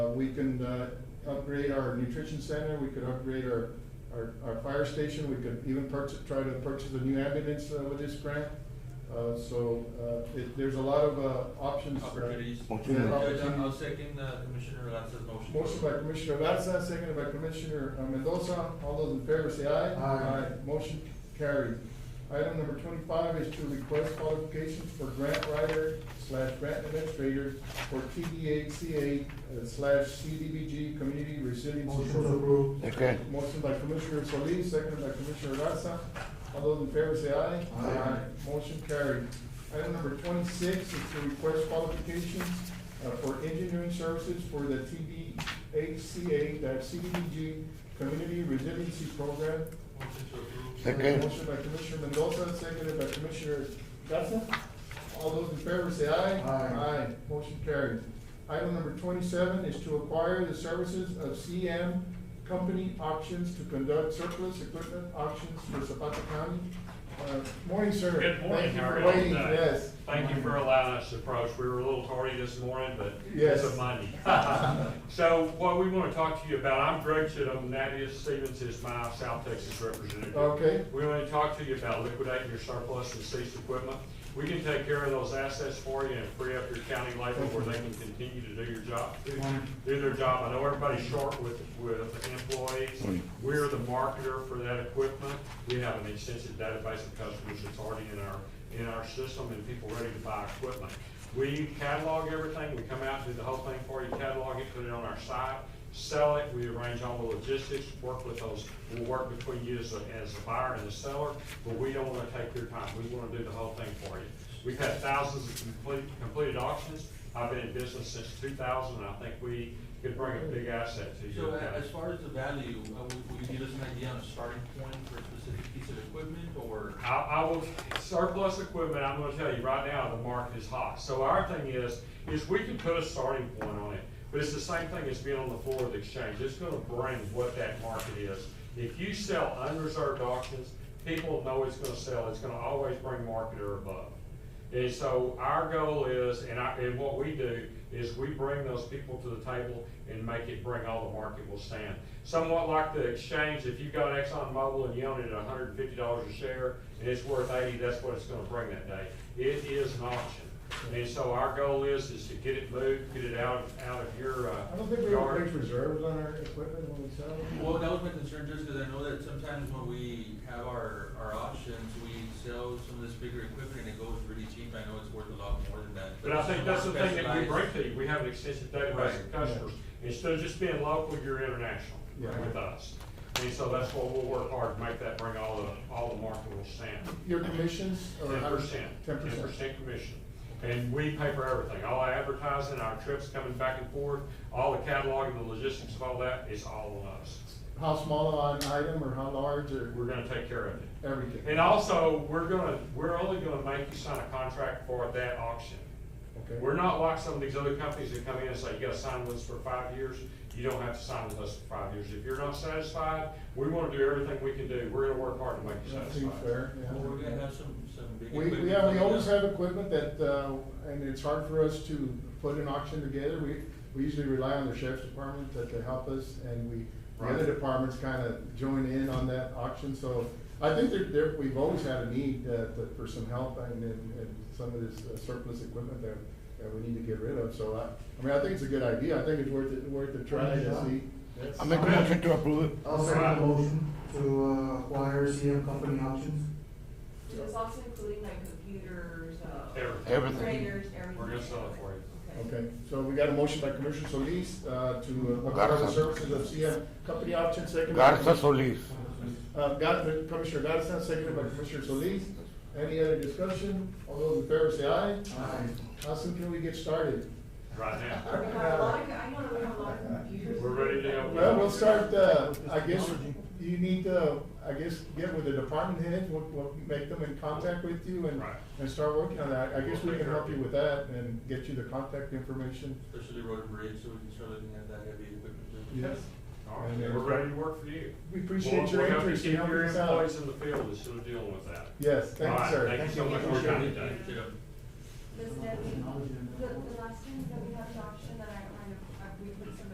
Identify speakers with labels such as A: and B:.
A: we can, uh, upgrade our nutrition center, we could upgrade our, our, our fire station, we could even purchase, try to purchase a new ambulance uh, with this grant. Uh, so, uh, it, there's a lot of, uh, options. uh,
B: Opportunities.
C: Motion.
A: yeah,
B: Judge,
A: opportunities.
B: I'll second uh, Commissioner Garza's motion.
A: Motion by Commissioner Garza, seconded by Commissioner uh, Mendoza. All those in favor say aye.
D: Aye.
A: Motion carried. Item number twenty-five is to request qualifications for grant writer slash grant administrator for TDHCA uh, slash CDBG Community Resilience.
D: Motion
A: Program.
D: approved.
C: Okay.
A: Motion by Commissioner Solis, seconded by Commissioner Garza. All those in favor say aye.
D: Aye.
A: Motion carried. Item number twenty-six is to request qualifications uh, for engineering services for the TDHCA CDBG Community Resiliency Program.
B: Motion to approve.
C: Second.
A: Motion by Commissioner Mendoza, seconded by Commissioner Garza. All those in favor say aye.
D: Aye.
A: Motion carried. Item number twenty-seven is to acquire the services of CM Company Auctions to conduct surplus equipment auctions for Zapata County. Uh, Morning, sir.
E: Good
A: Thank
E: morning,
A: you
E: how are
A: for
E: you all
A: waiting,
E: today?
A: yes.
E: Thank you for allowing us to approach. We were a little tardy this morning, but
A: Yes.
E: it's a Monday. So what we want to talk to you about, I'm Greg Chittum, Nadia Stevens is my South Texas representative.
A: Okay,
E: We want to talk to you about liquidating your surplus and seized equipment. We can take care of those assets for you and free up your county labor where they can continue to do your job, do- do their job. I know everybody's short with, with employees. We're the marketer for that equipment. We have an extensive database of customers that's already in our, in our system and people ready to buy equipment. We catalog everything, we come out, and do the whole thing for you, catalog it, put it on our site, sell it, we arrange all the logistics, work with those, we'll work between you as, a- as the buyer and the seller, but we don't wanna take your time, we wanna do the whole thing for you. We've had thousands of complete, completed auctions, I've been in business since two thousand, and I think we could bring a big asset to you.
B: So uh, a- as far as the value, uh, will will you give us an idea on a starting point for a specific piece of equipment or?
E: I, I will, surplus equipment, I'm gonna tell you right now, the market is hot. So our thing is, is we can put a starting point on it, but it's the same thing as being on the floor of the exchange. It's gonna bring what that market is. If you sell unreserved auctions, people know it's gonna sell, it's gonna always bring market or above. And so our goal is, and I, and what we do, is we bring those people to the table and make it bring all the market will stand. Somewhat like the exchange, if you've got Exxon Mobil and you own it at hundred and fifty dollars a share, and it's worth eighty, that's what it's gonna bring that day. It is an auction. And so our goal is, is to get it moved, get it out, out of your, uh,
A: I don't think we have
E: yard.
A: big reserves on our equipment when we sell. it.
B: Well, that was my concern, just because I know that sometimes when we have our, our auctions, we sell some of this bigger equipment and it goes really cheap. I know it's worth a lot more than that.
E: But I think that's the thing that we
B: Specialized-
E: bring to you, we have an extensive database of
B: Right.
E: customers. Instead of just being local, you're international
A: Yeah.
E: with us. And so that's what we'll work hard to make that bring all the, all the marketable stand.
A: Your commissions or?
E: Ten percent,
A: Ten
E: ten
A: percent.
E: percent commission. And we pay for everything, all our advertising, our trips coming back and forth, all the cataloging, the logistics of all that is all on us.
A: How small an item or how large or
E: We're gonna take care of it.
A: everything?
E: And also, we're gonna, we're only gonna make you sign a contract for that auction.
A: Okay.
E: We're not like some of these other companies that come in and say, you gotta sign with us for five years. You don't have to sign with us for five years. If you're not satisfied, we wanna do everything we can do. We're gonna work hard to make you
A: That seems
E: satisfied.
A: fair, yeah.
B: Well, we're gonna have some, some big
A: We,
B: equipment.
A: we have, we
B: coming
A: always
B: up.
A: have equipment that, uh, and it's hard for us to put an auction together. We, we usually rely on the sheriff's department to, to help us and we, the other
E: Right.
A: departments kind of join in on that auction. So I think there, there, we've always had a need, uh, to- for some help and, and, and some of this uh, surplus equipment that, that we need to get rid of. So I, I mean, I think it's a good idea. I think it's worth it, worth a try to see.
C: I make a motion to approve it.
D: I'll second the motion to uh, acquire CM Company Auctions.
F: Is this also including like computers, uh?
E: Everything.
C: Everything.
F: Printers, everything?
E: We're gonna sell it for you.
A: Okay, so we got a motion by Commissioner Solis, uh, to uh, acquire the
C: Garza.
A: services of CM Company Auction, second. by-
C: Garza Solis.
A: Uh, Gar- Commissioner Garza, seconded by Commissioner Solis. Any other discussion? All those in favor say aye.
D: Aye.
A: How soon can we get started?
E: Right now.
F: We have Uh, a lot of, I know we have a lot of computers.
E: We're ready to go.
A: Well, we'll start, uh, I guess you need to, I guess, get with the department head, we'll, we'll make them in contact with you and,
E: Right.
A: and start working on that. I guess we can help you with that and get you the contact information.
B: Especially road and bridge, so we can start looking at that heavy equipment.
A: Yes.
E: All right, we're ready to work for you.
A: uh, We appreciate your
E: We'll- we'll help you
A: interest in
E: Keep
A: helping
E: your
A: us out.
E: employees in the field instead of dealing with that.
A: Yes, thank you,
E: All right,
A: sir.
E: thank you so much for your
A: Commissioner.
E: time today.
F: Does that mean- the, the last time that we had an auction that I